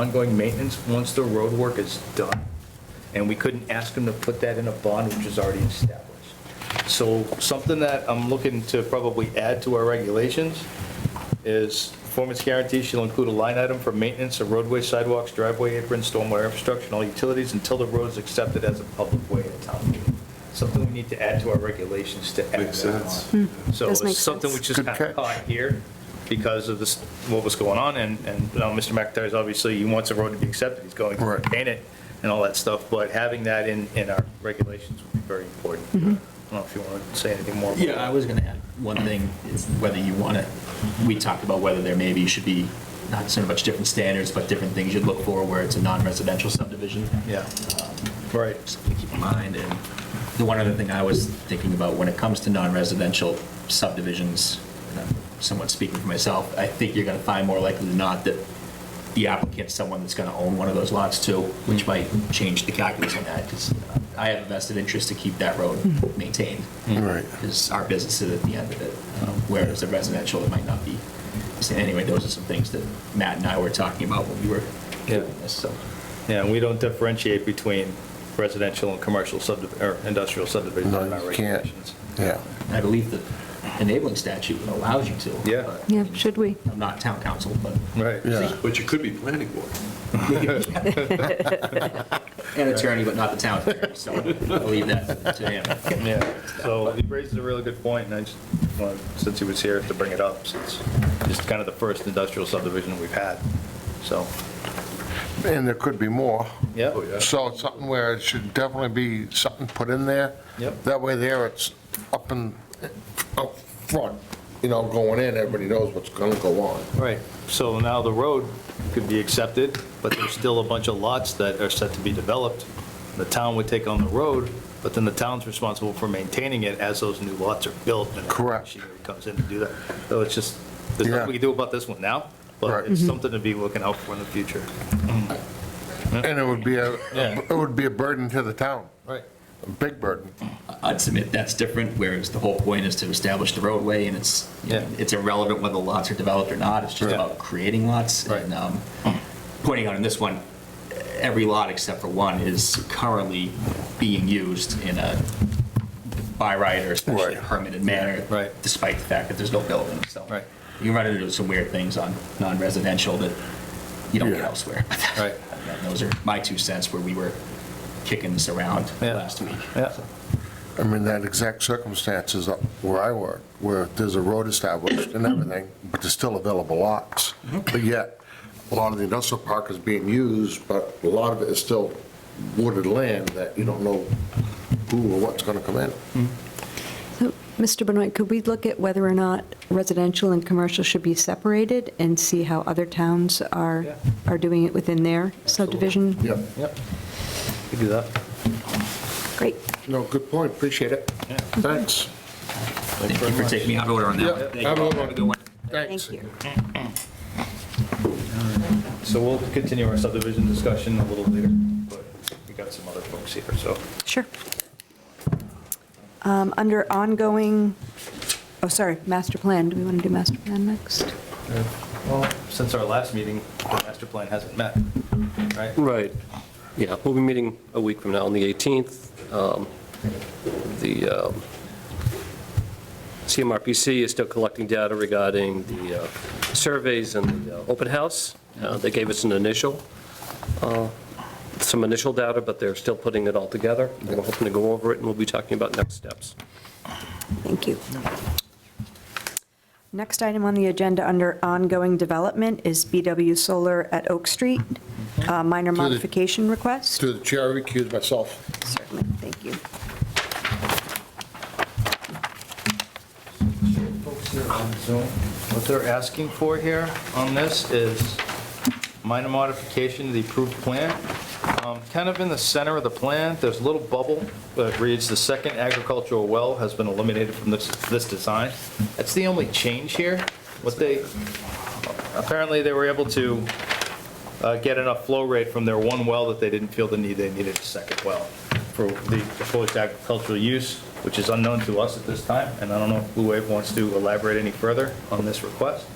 ongoing maintenance once the road work is done. And we couldn't ask them to put that in a bond, which is already established. So something that I'm looking to probably add to our regulations is performance guarantee shall include a line item for maintenance of roadway, sidewalks, driveway aprons, stormwater infrastructure, and all utilities until the road is accepted as a public way at town meeting. Something we need to add to our regulations to add Makes that sense. on. So does make it's something sense. which is kind Good of catch. caught here because of this, what was going on, and, and you know, Mr. McIntyre's obviously, he wants the road to be accepted, he's going to Right. maintain it and all that stuff, but having that in, in our regulations would be very important. I don't know if you want to say anything more. about Yeah, I was gonna add one thing, is whether you want to, we talked about whether there maybe should be, not so much different standards, but different things you'd look for where it's a non-residential subdivision. Yeah, right. Something to keep in mind, and the one other thing I was thinking about, when it comes to non-residential subdivisions, and I'm somewhat speaking for myself, I think you're gonna find more likely than not that the applicant's someone that's gonna own one of those lots too, which might change the calculus on that, because I have a vested interest to keep that road maintained Right. is our business is at the end of it, um, whereas a residential, it might not be. So anyway, those are some things that Matt and I were talking about when we were doing this, so. Yeah, and we don't differentiate between residential and commercial subdivision, or industrial subdivisions No, in our you can't. regulations. Yeah. I believe the enabling statute allows you to. Yeah. but- Yeah, should we? I'm not town council, but, Right. Yeah. But you could be planning board. an attorney, but not the town attorney, so I'll leave that to him. Yeah, so he raises a really good point, and I just, wanted, since he was here, to bring it up, since it's kind of the first industrial subdivision we've had, so, And there could be more. yeah. Oh, yeah. So it's something where it should definitely be something put in there. Yep. That way there, it's up and, uh, up front, you know, going in, everybody knows what's gonna go on. Right, so now the road could be accepted, but there's still a bunch of lots that are set to be developed. The town would take on the road, but then the town's responsible for maintaining it as those new lots are built. and the Correct. Machinery comes in to do that. So it's just, there's nothing we Yeah. can do about this one now, Right. but Mm-hmm. it's something to be looking out for in the future. And it would be a, Yeah. it would be a burden to the town, Right. a big burden. I'd submit that's different, whereas the whole point is to establish the roadway, and it's, Yeah. it's irrelevant whether lots are developed or not, it's just Yeah. about creating lots. Right. And um, pointing out in this one, every lot except for one is currently being used in a by right or especially Right. permitted manner. Right. Despite the fact that there's no building, so. Right. You run into some weird things on non-residential that you don't get Yeah. elsewhere. Right. And Those are my two cents where we were kicking this around Yeah. last week. Yeah. I mean, that exact circumstance is up where I work, where there's a road established and everything, but there's still available lots. Mm-hmm. But yet, a lot of the industrial park is being used, but a lot of it is still wooded land that you don't know who or what's gonna come in. Mm-hmm. So, Mr. Benoit, could we look at whether or not residential and commercial should be separated and see how other towns are, Yeah. are doing it within their subdivision? Yep, Yep. We do that. Great. no, good point, appreciate it. Yeah. Thanks, Thank you for taking me out of order on Yeah, that. one. Thank you. have a good one. Have a good one. thanks. Thank you. So we'll continue our subdivision discussion a little later, but we got some other folks here, so. Sure. Um, Under ongoing, oh, sorry, master plan. Do we want to do master plan next? Well, since our last meeting, the master plan hasn't met, right? Right. Yeah, we'll be meeting a week from now on the 18th. Um, The um, CMRPC is still collecting data regarding the uh, surveys and the uh, open house. Uh, They gave us an initial, uh, some initial data, but they're still putting it all together. And We're hoping to go over it, and we'll be talking about next steps. Thank you. Next item on the agenda under ongoing development is BW Solar at Oak Street, uh, minor the- modification request. To the chair, I recuse myself. Certainly, thank you. Folks here on Zoom, what they're asking for here on this is minor modification to the approved plan. Um, Kind of in the center of the plan, there's a little bubble that reads, "The second agricultural well has been eliminated from this, this design." That's the only change here. What they, apparently they were able to uh, get enough flow rate from their one well that they didn't feel the need, they needed a second well for the proposed agricultural use, which is unknown to us at this time, and I don't know if Blue Wave wants to elaborate any further on this request.